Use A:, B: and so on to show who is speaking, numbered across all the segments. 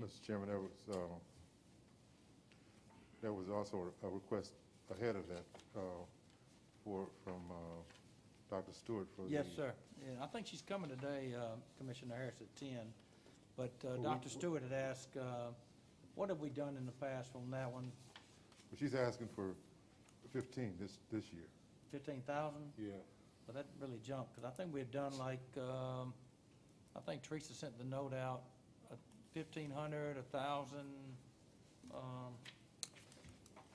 A: Mr. Chairman, that was, uh, that was also a request ahead of that uh, for, from uh, Dr. Stewart for the...
B: Yes, sir. And I think she's coming today, uh, Commissioner Harris, at 10. But uh,
A: we-
B: Dr. Stewart had asked, uh, what have we done in the past on that one?
A: But she's asking for 15 this, this year.
B: 15,000?
A: Yeah.
B: But that really jumped, because I think we had done like, um, I think Teresa sent the note out, uh, 1,500, 1,000. um,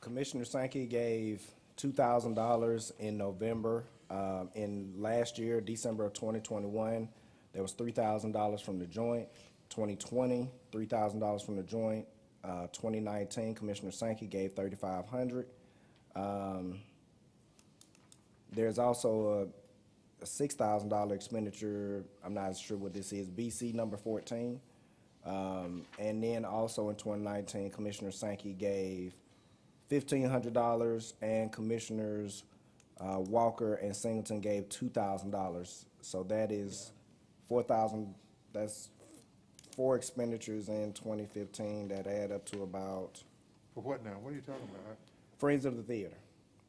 C: Commissioner Sankey gave two thousand dollars in November. Um, in last year, December of twenty twenty-one, there was three thousand dollars from the joint. 2020, 3000 dollars from the joint. Uh, twenty nineteen, Commissioner Sankey gave thirty-five hundred. Um, there's also a, a six thousand dollar expenditure, I'm not sure what this is, BC number fourteen. Um, and then also in twenty nineteen, Commissioner Sankey gave fifteen hundred dollars, and Commissioners uh, Walker and Singleton gave two thousand dollars. So that is four thousand. That's four expenditures in twenty fifteen that add up to about
A: For what now? What are you talking about?
C: Friends of the Theater.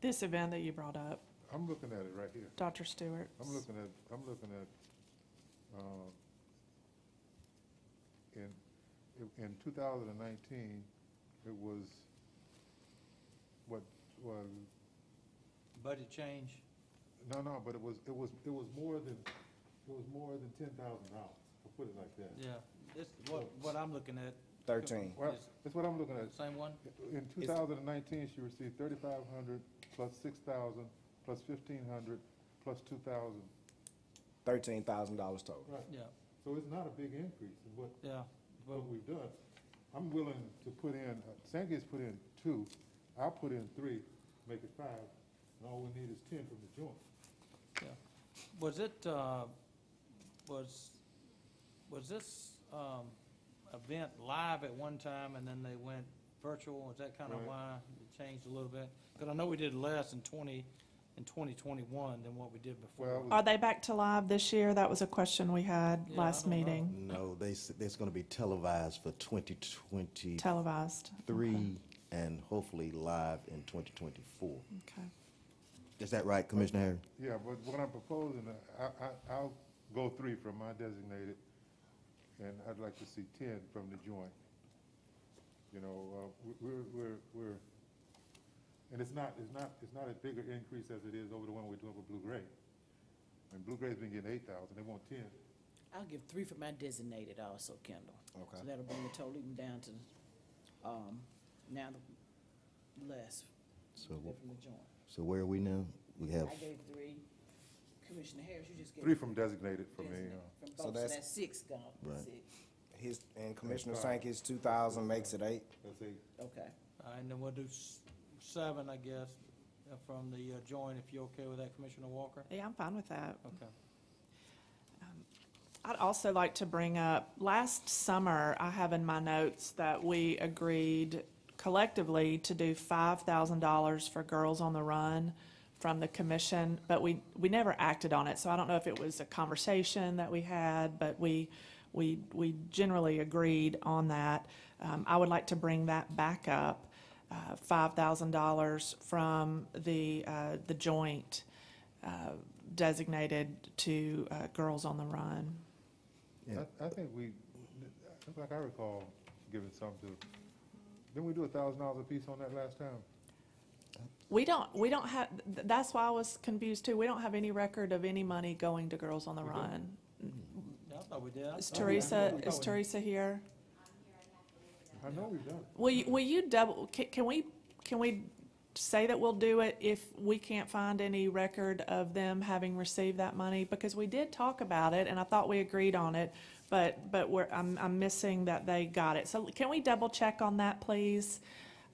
D: This event that you brought up,
A: I- I'm looking at it right here.
D: Dr. Stewart.
A: I'm looking at, I'm looking at, uh, in, in 2019, it was, what, was,
B: Budget change,
A: no, no, but it was, it was, it was more than, it was more than $10,000. I'll put it like that.
B: yeah. This, what, what I'm looking at.
C: Thirteen.
A: Well, that's what I'm looking at.
B: Same one?
A: In 2019, she received 3,500 plus 6,000 plus 1,500 plus 2,000.
C: Thirteen thousand dollars total.
A: Right.
B: Yeah,
A: So it's not a big increase in what,
B: yeah. Well,
A: what we've done. I'm willing to put in, Sankey's put in two, I'll put in three, make it five, and all we need is 10 from the joint.
B: Yeah. Was it, uh, was, was this um, event live at one time and then they went virtual? Is that kind of
A: Right.
B: why it changed a little bit? Because I know we did less in 20, in 2021 than what we did
A: Well,
B: before.
A: it was-
D: Are they back to live this year? That was a question we had
B: Yeah, I
D: last
B: don't know.
D: meeting,
E: No, they, s- it's going to be televised for 2023
D: televised.
E: and hopefully live in 2024.
D: Okay.
E: Is that right, Commissioner Harris?
A: Yeah, but what I'm proposing, uh, I, I, I'll go three from my designated, and I'd like to see ten from the joint. You know, uh, we- we're, we're, we're, and it's not, it's not, it's not a bigger increase as it is over the one we're doing for Blue Gray. And Blue Gray's been getting eight thousand, they want ten.
F: I'll give three for my designated also, Kendall.
C: Okay.
F: So that'll bring the total even down to, um, now the less
E: So,
F: than
E: wh-
F: from the joint.
E: so where are we now? We have,
F: I gave three. Commissioner Harris, you just gave.
A: Three from designated for me,
F: designate-
A: uh,
F: From
C: So
F: both, so
C: that's-
F: that's six gone,
E: Right.
F: six,
C: His and Commissioner
A: That's fine.
C: Sankey's two thousand makes it eight.
A: that's eight.
F: okay.
B: Uh, And then we'll do s- seven, I guess, uh, from the uh, joint, if you're okay with that, Commissioner Walker?
D: Yeah, I'm fine with that.
B: Okay.
D: I'd also like to bring up, last summer, I have in my notes that we agreed collectively to do $5,000 for Girls on the Run from the commission, but we, we never acted on it. So I don't know if it was a conversation that we had, but we, we, we generally agreed on that. Um, I would like to bring that back up, uh, $5,000 from the, uh, the joint uh, designated to uh, Girls on the Run.
E: Yeah.
A: I, I think we, that's like I recall giving some to, didn't we do a thousand dollars a piece on that last time?
D: We don't, we don't have, th- that's why I was confused too. We don't have any record of any money going to Girls on the Run.
B: Yeah, I thought we did. I
D: Is
B: thought we- I
D: Teresa,
B: thought we-
D: is Teresa here?
A: I know we've done it.
D: Will you, will you double, can, can we, can we say that we'll do it if we can't find any record of them having received that money? Because we did talk about it and I thought we agreed on it, but, but we're, I'm, I'm missing that they got it. So can we double check on that, please?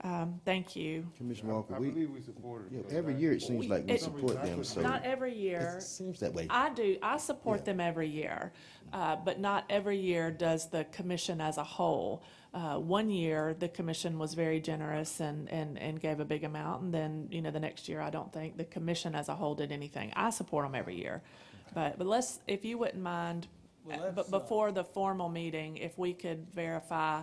D: Um, thank you.
E: Commissioner
A: I I
E: Walker, we,
A: believe we supported
E: yeah,
A: it.
E: every year it seems like we
D: It-
E: support them, so
D: Not every
E: it
D: year.
E: seems that way.
D: I do, I support
E: Yeah.
D: them every year, uh, but not every year does the commission as a whole. Uh, One year, the commission was very generous and, and, and gave a big amount, and then, you know, the next year, I don't think the commission as a whole did anything. I support them every year. But, but let's, if you wouldn't mind,
B: Well,
D: uh,
B: let's,
D: but
B: uh,
D: before the formal meeting, if we could verify